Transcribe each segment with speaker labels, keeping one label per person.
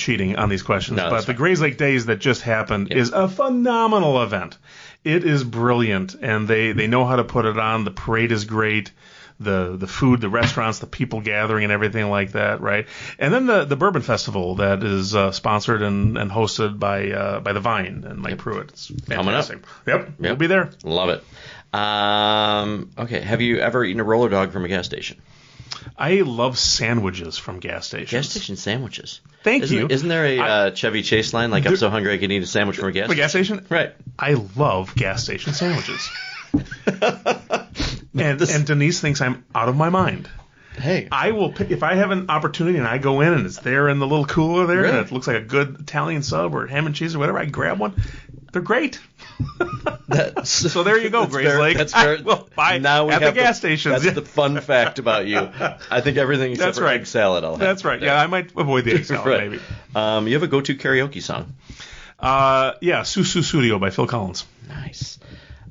Speaker 1: cheating on these questions,
Speaker 2: No,
Speaker 1: but
Speaker 2: that's
Speaker 1: the
Speaker 2: fine.
Speaker 1: Grays Lake Days that just happened is a phenomenal event. It is brilliant, and they they know how to put it on. The parade is great. The, the food, the restaurants, the people gathering, and everything like that, right? And then the, the Bourbon Festival that is uh, sponsored and, and hosted by uh, by the Vine and Mike Pruitt. It's
Speaker 2: Coming up.
Speaker 1: fantastic. Yep, we'll
Speaker 2: Yep.
Speaker 1: be there.
Speaker 2: Love it. Um, okay. Have you ever eaten a roller dog from a gas station?
Speaker 1: I love sandwiches from gas stations.
Speaker 2: Gas station sandwiches.
Speaker 1: Thank
Speaker 2: isn't,
Speaker 1: you.
Speaker 2: Isn't there a
Speaker 1: I-
Speaker 2: uh, Chevy Chase line like I'm so hungry I could eat a sandwich from a gas?
Speaker 1: From a gas station?
Speaker 2: Right.
Speaker 1: I love gas station sandwiches. and and Denise thinks I'm out of my mind.
Speaker 2: Hey.
Speaker 1: I will pick, if I have an opportunity and I go in and it's there in the little cooler there
Speaker 2: Really?
Speaker 1: and it looks like a good Italian sub or ham and cheese or whatever. I grab one. They're great. So there you go,
Speaker 2: That's
Speaker 1: Grace
Speaker 2: fair-
Speaker 1: Lake.
Speaker 2: That's fair.
Speaker 1: I will buy
Speaker 2: now we
Speaker 1: at the
Speaker 2: have
Speaker 1: gas stations.
Speaker 2: That's the fun fact about you. I think everything except
Speaker 1: That's
Speaker 2: for
Speaker 1: right.
Speaker 2: egg salad. I'll have.
Speaker 1: That's right. Yeah, I might avoid the egg salad
Speaker 2: Right.
Speaker 1: maybe.
Speaker 2: Um, you have a go-to karaoke song.
Speaker 1: Uh, yeah, Susu Studio by Phil Collins.
Speaker 2: Nice.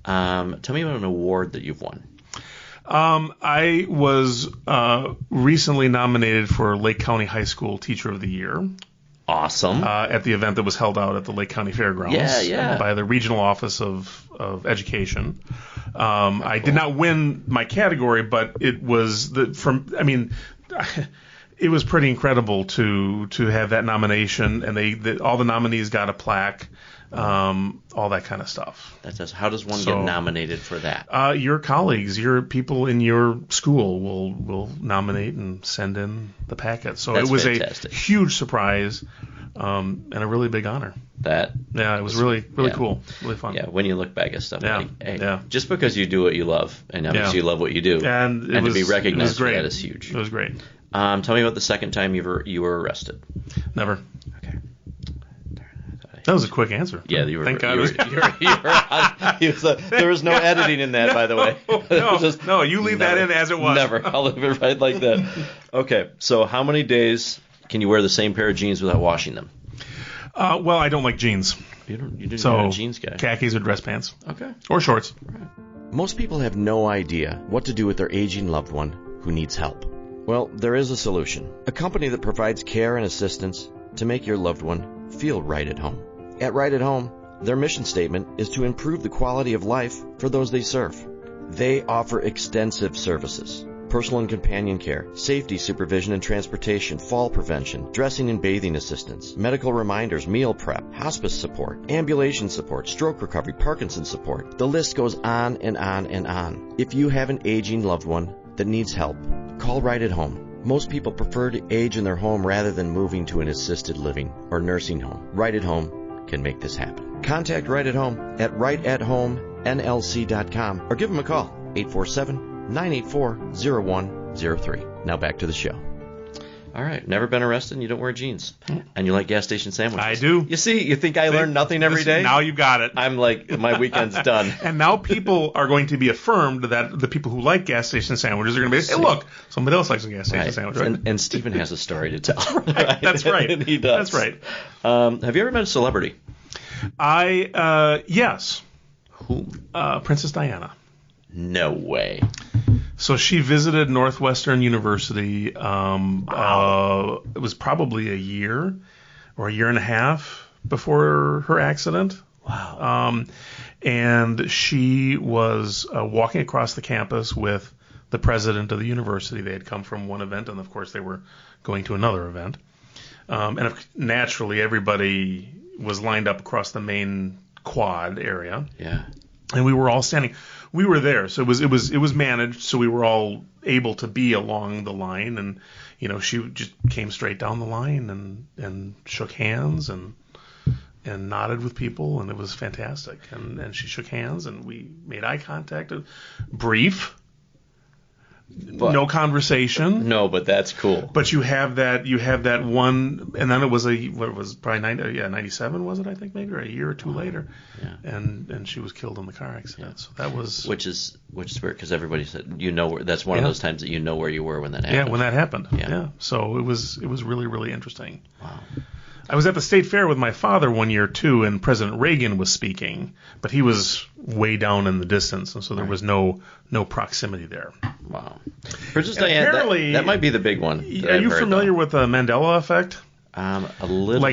Speaker 2: Um, tell me about an award that you've won.
Speaker 1: Um, I was uh, recently nominated for Lake County High School Teacher of the Year
Speaker 2: Awesome.
Speaker 1: uh, at the event that was held out at the Lake County Fairgrounds um,
Speaker 2: Yeah, yeah.
Speaker 1: by the Regional Office of, of Education. Um, I did not win my category, but it was the from. I mean. It was pretty incredible to to have that nomination, and they the, all the nominees got a plaque, um, all that kind of stuff.
Speaker 2: that does. How does one
Speaker 1: so-
Speaker 2: get nominated for that?
Speaker 1: Uh, your colleagues, your people in your school will will nominate and send in the packet. So
Speaker 2: That's
Speaker 1: it was
Speaker 2: fantastic.
Speaker 1: a huge surprise um, and a really big honor.
Speaker 2: that
Speaker 1: Yeah, it was really really
Speaker 2: yeah.
Speaker 1: cool, really fun.
Speaker 2: yeah. When you look back at stuff,
Speaker 1: Yeah,
Speaker 2: like, hey,
Speaker 1: yeah.
Speaker 2: just because you do what you love, and obviously
Speaker 1: Yeah.
Speaker 2: you love what you do,
Speaker 1: And it was
Speaker 2: to be
Speaker 1: it
Speaker 2: recognized
Speaker 1: was great.
Speaker 2: for that is huge.
Speaker 1: It was great.
Speaker 2: Um, tell me about the second time you were you were arrested.
Speaker 1: Never.
Speaker 2: Okay.
Speaker 1: That was a quick answer.
Speaker 2: Yeah, you were.
Speaker 1: Thank
Speaker 2: you
Speaker 1: God.
Speaker 2: were- you were- you were on- you was, uh, there was no editing in that, by the way.
Speaker 1: No,
Speaker 2: It was
Speaker 1: no, no, you leave that in as it was.
Speaker 2: Never. I'll leave it right like that. Okay, so how many days can you wear the same pair of jeans without washing them?
Speaker 1: uh, well, I don't like jeans,
Speaker 2: You don't. You didn't
Speaker 1: so
Speaker 2: have a jeans guy.
Speaker 1: khakis or dress pants
Speaker 2: Okay.
Speaker 1: or shorts.
Speaker 2: Most people have no idea what to do with their aging loved one who needs help. Well, there is a solution a company that provides care and assistance to make your loved one feel right at home. At Right at Home, their mission statement is to improve the quality of life for those they serve. They offer extensive services personal and companion care, safety supervision and transportation, fall prevention, dressing and bathing assistance, medical reminders, meal prep, hospice support, ambulation support, stroke recovery, Parkinson's support. The list goes on and on and on. If you have an aging loved one that needs help, call right at home. Most people prefer to age in their home rather than moving to an assisted living or nursing home. Right at home can make this happen. Contact Right at Home at rightathomenlc.com or give them a call 847 984 0103. Now back to the show. All right, never been arrested and you don't wear jeans. And you like gas station sandwiches.
Speaker 1: I do.
Speaker 2: You see, you think I learn nothing every
Speaker 1: This-
Speaker 2: day?
Speaker 1: Now you've got it.
Speaker 2: I'm like, my weekend's done.
Speaker 1: And now people are going to be affirmed that the people who like gas station sandwiches are going to be, hey, look, somebody else likes a gas station
Speaker 2: Right.
Speaker 1: sandwich. Right?
Speaker 2: And, and Stephen has a story to tell.
Speaker 1: That's right.
Speaker 2: And he does.
Speaker 1: That's right.
Speaker 2: Um, have you ever met a celebrity?
Speaker 1: I, uh, yes,
Speaker 2: Who?
Speaker 1: uh, Princess Diana.
Speaker 2: No way.
Speaker 1: So she visited Northwestern University. Um, uh, it was probably a year or a year and a half before her accident. Wow. Um, and she was uh, walking across the campus with the president of the university. They had come from one event, and of course, they were going to another event. Um, and of- naturally, everybody was lined up across the main quad area
Speaker 2: Yeah.
Speaker 1: and we were all standing. We were there, so it was it was it was managed, so we were all able to be along the line, and you know she just came straight down the line and and shook hands and and nodded with people, and it was fantastic. And and she shook hands, and we made eye contact, brief,
Speaker 2: But,
Speaker 1: no conversation.
Speaker 2: No, but that's cool.
Speaker 1: But you have that you have that one, and then it was a what was it, probably ninety yeah ninety seven was it I think maybe or a year or two later,
Speaker 2: Yeah.
Speaker 1: and and she was killed in the car accident. So that was
Speaker 2: Which is which is weird because everybody said you know where, that's one of
Speaker 1: Yeah.
Speaker 2: those times that you know where you were when that
Speaker 1: yeah
Speaker 2: happened.
Speaker 1: when that happened.
Speaker 2: Yeah.
Speaker 1: Yeah. So it was it was really really interesting.
Speaker 2: Wow.
Speaker 1: I was at the state fair with my father one year too, and President Reagan was speaking, but he was way down in the distance, and so there was no no proximity there.
Speaker 2: Wow. Princess Diana. that-
Speaker 1: apparently-
Speaker 2: that, might be the big one. that
Speaker 1: Are
Speaker 2: I've
Speaker 1: you
Speaker 2: heard,
Speaker 1: familiar
Speaker 2: though.
Speaker 1: with the Mandela effect?
Speaker 2: Um, a little